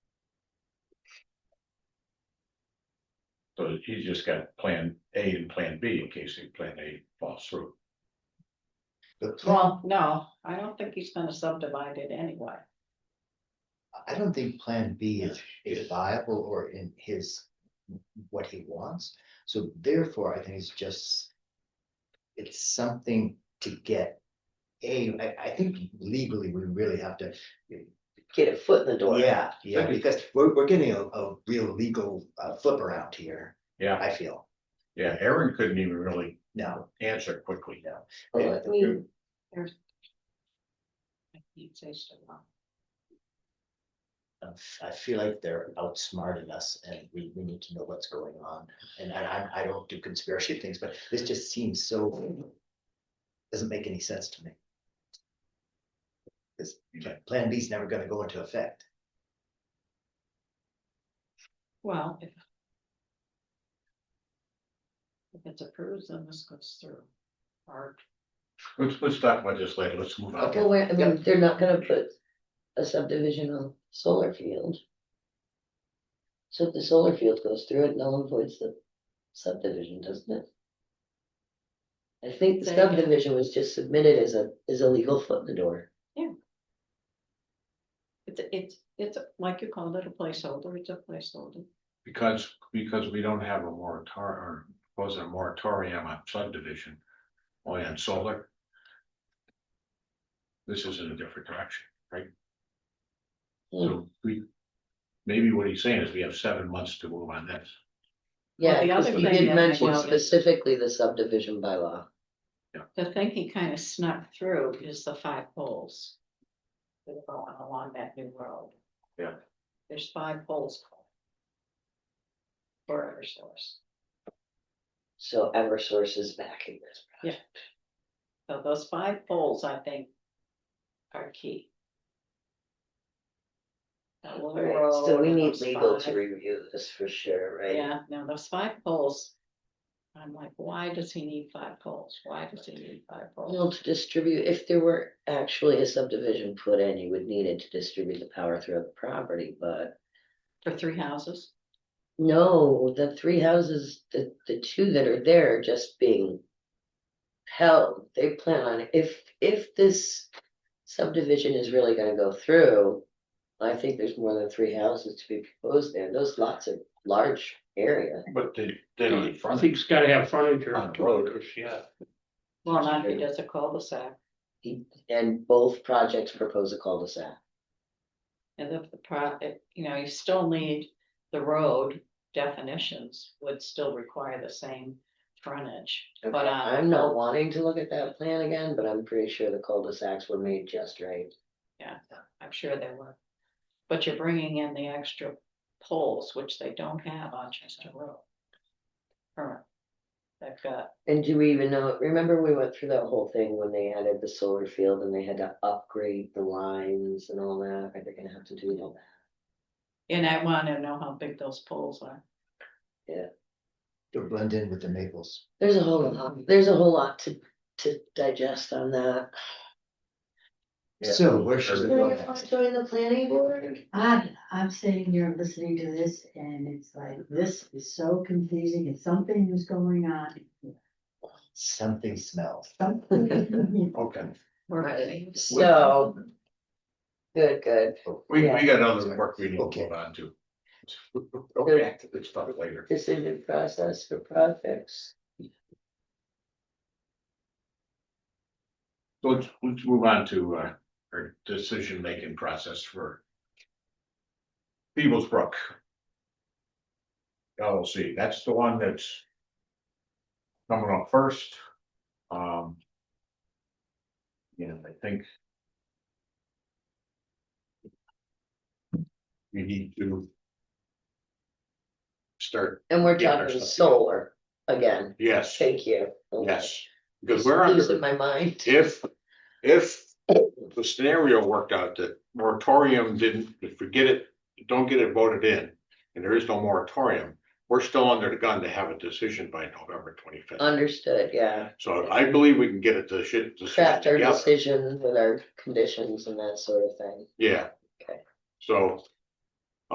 So he's just got plan A and plan B in case the plan A falls through. Well, no, I don't think he's gonna subdivide it anyway. I don't think Plan B is, is viable or in his, what he wants. So therefore, I think it's just, it's something to get. A, I, I think legally, we really have to, get a foot in the door. yeah, yeah, Okay. because we're, we're getting a, a real legal uh, flip around here, Yeah, I feel, yeah, Aaron couldn't even really no. answer quickly. Well, I mean, I can't say so well. Um, I feel like they're outsmarting us and we, we need to know what's going on. And I, I, I don't do conspiracy things, but this just seems so. Doesn't make any sense to me. Cause Plan B is never gonna go into effect. Well, if. If it's approved, then this goes through. Or Let's, let's talk about this later. Let's move on. well, wait, I Yeah. mean, they're not gonna put a subdivision on solar field. So if the solar field goes through it, null and voids the subdivision, doesn't it? I think the There you go. subdivision was just submitted as a, as a legal foot in the door. it's, it's, it's like you called it, a placeholder, it's a placeholder. Because, because we don't have a moratorium, or was a moratorium on subdivision, only on solar. This is in a different direction, right? So we, maybe what he's saying is we have seven months to move on this. Well, Yeah, the because other he thing did I mention think is- specifically the subdivision bylaw. The thing he kind of snuck through is the five poles. That are going along that new road. Yeah. There's five poles. For Eversource, So Eversource is backing this. Yeah. so those five poles, I think. Are key. That All little right, so road we and need those legal to five- review this for sure, right? Yeah, now those five poles. I'm like, why does he need five poles? Why does he need five poles? Well, to distribute, if there were actually a subdivision put in, you would need it to distribute the power throughout the property, but. For three houses? No, the three houses, the, the two that are there are just being. Held, they plan on, if, if this subdivision is really gonna go through. I think there's more than three houses to be proposed there, those lots are large area. But they, I they don't. think it's gotta have furniture On on the the road. road, yeah. Well, not if he does a cul-de-sac. And both projects propose a cul-de-sac. And if the pro, if, you know, you still need the road definitions would still require the same frontage. But, Okay, uh, I'm not wanting to look at that plan again, but I'm pretty sure the cul-de-sacs were made just right. I'm sure they were. But you're bringing in the extra poles, which they don't have on Chester Road. Current. They've got, And do we even know, remember we went through that whole thing when they added the solar field and they had to upgrade the lines and all that, are they gonna have to do all that? and I wanna know how big those poles are. They'll blend in with the maples. There's a whole lot, there's a whole lot to, to digest on that. So where should we Everything. go Do you want to next? join the planning board? I, I'm sitting here listening to this and it's like, this is so confusing and something is going on. Something smells. Something- Okay, We're ready. So. Good, good, we, we Yeah. got other work we need to Okay. move on to. Go back to this stuff later. decision process for projects. So Let's, let's move on to, uh, our decision-making process for. Peoples Brook. LLC, that's the one that's. Coming up first. Um. Yeah, I think. We need to. Start, And we're Yeah, talking there's- solar again, yes, thank you. Okay. yes, because we're under. Losing my mind. If, if the scenario worked out that moratorium didn't, if we get it, don't get it voted in. And there is no moratorium, we're still under the gun to have a decision by November twenty Um, fifth. Understood, yeah. So I believe we can get a deci- decision Craft our together, decision with our conditions and that sort of thing. yeah. Okay. So